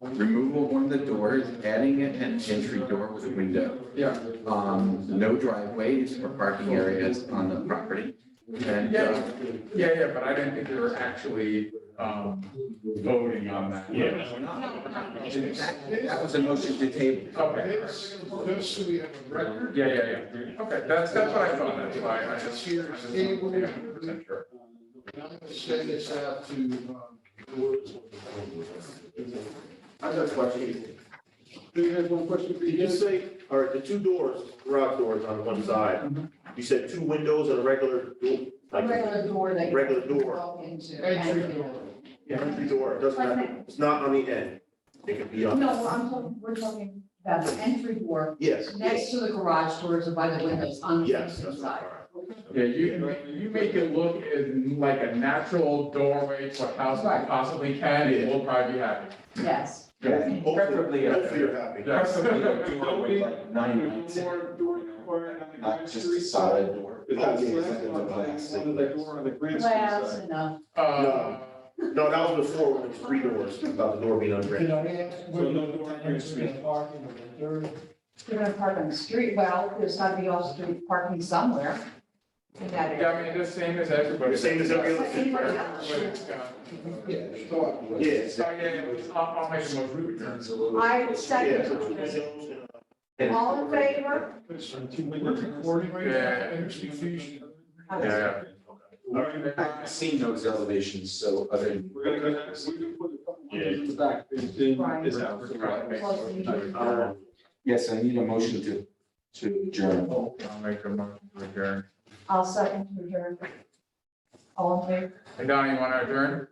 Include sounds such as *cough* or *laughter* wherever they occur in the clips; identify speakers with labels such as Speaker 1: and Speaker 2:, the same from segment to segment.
Speaker 1: removal of one of the doors, adding an entry door with a window.
Speaker 2: Yeah.
Speaker 1: Um, no driveways or parking areas on the property. And, uh,
Speaker 2: Yeah, yeah, yeah, but I didn't think we were actually, um, voting on that.
Speaker 3: Yeah.
Speaker 1: we're not- that that was a motion to table.
Speaker 2: Okay,
Speaker 4: This, this we have a record.
Speaker 2: yeah, yeah, yeah, okay, that's, that's what I thought, that's why I
Speaker 4: It's
Speaker 2: just.
Speaker 4: here,
Speaker 2: I just-
Speaker 4: table,
Speaker 2: yeah,
Speaker 4: and
Speaker 2: I'm
Speaker 4: I'm
Speaker 2: percent sure.
Speaker 4: gonna send this out to, um, George.
Speaker 5: I got a question.
Speaker 4: Do you have one question for
Speaker 5: Did you
Speaker 4: you?
Speaker 5: say, all right, the two doors, garage doors on one side, you said two windows and a regular, door, like a
Speaker 6: Regular door that. you
Speaker 5: regular door,
Speaker 6: Walk into.
Speaker 4: Entry
Speaker 6: and-
Speaker 4: door.
Speaker 5: entry door, it doesn't have, it's not on the end. It could be on.
Speaker 6: No, I'm talking, we're talking about the entry door
Speaker 5: Yes,
Speaker 6: next
Speaker 5: yes,
Speaker 6: to the garage doors or by the windows on the
Speaker 5: yes, that's
Speaker 6: east
Speaker 5: what I
Speaker 6: side.
Speaker 2: Yeah, you, you make it look as like a natural doorway to a house that
Speaker 6: Right.
Speaker 2: possibly can, and we'll probably be happy.
Speaker 6: Yes,
Speaker 2: Yeah.
Speaker 5: thought. Hopefully, hopefully you're happy.
Speaker 2: Yes.
Speaker 1: Preferably a door with like nine lights in it,
Speaker 7: More door required on the
Speaker 1: not just
Speaker 7: grocery
Speaker 1: a
Speaker 7: side.
Speaker 1: solid door.
Speaker 7: Is that
Speaker 5: Okay,
Speaker 7: the
Speaker 5: it's
Speaker 7: last
Speaker 5: like a
Speaker 7: one,
Speaker 5: glass
Speaker 7: like, one of the
Speaker 5: thing.
Speaker 7: door on the grocery
Speaker 6: glass
Speaker 7: side?
Speaker 6: enough.
Speaker 2: Uh,
Speaker 5: No, that was before, when it was three doors, about the door being
Speaker 4: Did
Speaker 5: ungraded.
Speaker 4: I ask whether the tenants are gonna park in the third?
Speaker 6: You're gonna park on the street. Well, there's gotta be off-street parking somewhere in that
Speaker 2: yeah, I
Speaker 6: area.
Speaker 2: mean, the same as everybody.
Speaker 5: Same as every other thing,
Speaker 6: Anybody
Speaker 5: right?
Speaker 6: else?
Speaker 2: Everybody's got-
Speaker 4: Yeah, thought was.
Speaker 5: Yes.
Speaker 2: Yeah, yeah, yeah, I'll, I'll make a motion.
Speaker 6: I will
Speaker 5: Yeah.
Speaker 6: second. All in favor?
Speaker 7: We're recording right now.
Speaker 2: Yeah. Yeah,
Speaker 1: I've seen those elevations, so other than
Speaker 7: We're gonna go next. We can put a couple windows in the back. It's in-
Speaker 6: Right.
Speaker 7: it's out.
Speaker 6: Close the meeting.
Speaker 5: Um,
Speaker 1: Yes, I need a motion to, to adjourn.
Speaker 2: I'll make a motion to adjourn.
Speaker 6: I'll second to adjourn. All in favor?
Speaker 2: Hey, Don, you want to adjourn?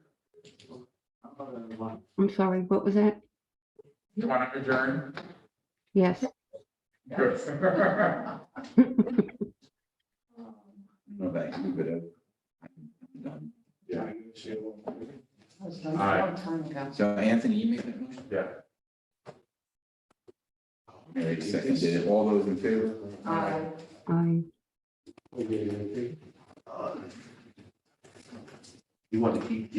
Speaker 8: I'm sorry, what was that?
Speaker 2: You want to adjourn?
Speaker 8: Yes.
Speaker 2: Good. *laughs*
Speaker 1: No, that you would have. I'm done.
Speaker 4: Yeah, I can see it.
Speaker 6: That was done
Speaker 2: Aye.
Speaker 6: a long time ago.
Speaker 1: So Anthony, you made that motion?
Speaker 2: Yeah.
Speaker 1: Mary seconded it. All those in favor?
Speaker 6: Aye.
Speaker 8: I.
Speaker 5: uh, You want to keep